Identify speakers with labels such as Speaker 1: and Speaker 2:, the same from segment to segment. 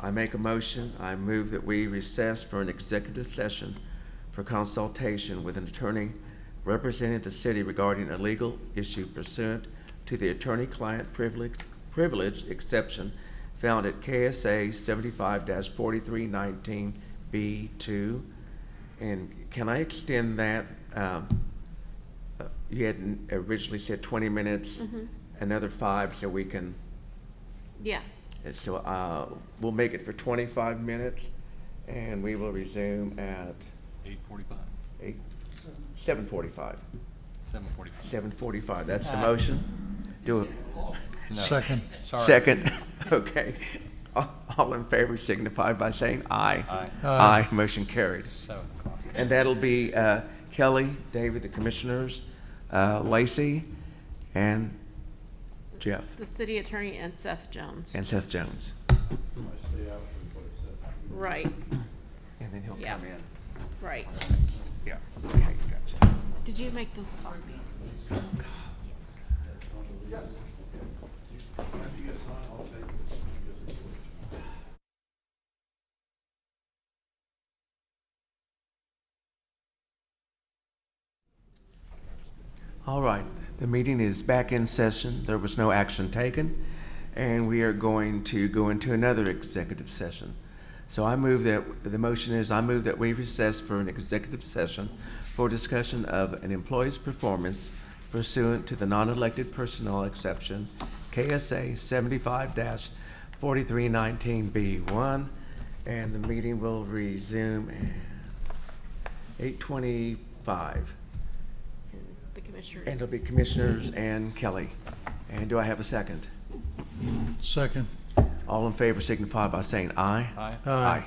Speaker 1: I make a motion, I move that we recess for an executive session for consultation with an attorney representing the city regarding a legal issue pursuant to the attorney-client privilege, privilege exception found at KSA seventy-five forty-three nineteen B two. And can I extend that, um, uh, you had originally said twenty minutes, another five, so we can
Speaker 2: Yeah,
Speaker 1: and So uh, we'll make it for 25 minutes, and we will resume at
Speaker 3: Eight forty-five,
Speaker 1: eight, 7:45.
Speaker 3: seven forty-five.
Speaker 1: 7:45, that's the motion? Do
Speaker 4: Second.
Speaker 1: a
Speaker 3: Sorry.
Speaker 1: second, okay. All- All in favor signify by saying aye.
Speaker 3: Aye.
Speaker 1: Aye,
Speaker 4: Aye.
Speaker 1: motion carries.
Speaker 3: Seven o'clock.
Speaker 1: And that'll be uh, Kelly, David, the commissioners, uh, Lacey, and Jeff,
Speaker 2: the city attorney and Seth Jones.
Speaker 1: and Seth Jones.
Speaker 2: Right,
Speaker 1: And then he'll
Speaker 2: Yeah.
Speaker 1: come in.
Speaker 2: right.
Speaker 1: Yeah, okay, gotcha.
Speaker 2: Did you make those copies?
Speaker 1: All right, the meeting is back in session. There was no action taken, and we are going to go into another executive session. So I move that, the motion is, I move that we recess for an executive session for discussion of an employee's performance pursuant to the non-elected personnel exception, KSA seventy-five forty-three nineteen B one, and the meeting will resume at eight twenty-five.
Speaker 2: And the commissioner.
Speaker 1: And it'll be Commissioners and Kelly. And do I have a second?
Speaker 4: Second.
Speaker 1: All in favor signify by saying aye.
Speaker 3: Aye.
Speaker 4: Aye.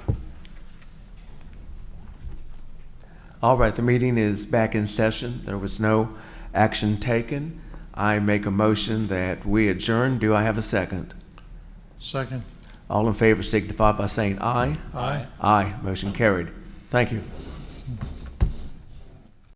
Speaker 1: All right, the meeting is back in session. There was no action taken. I make a motion that we adjourn. Do I have a second?
Speaker 4: Second.
Speaker 1: All in favor signify by saying aye.
Speaker 4: Aye.
Speaker 1: Aye, motion carried. Thank you.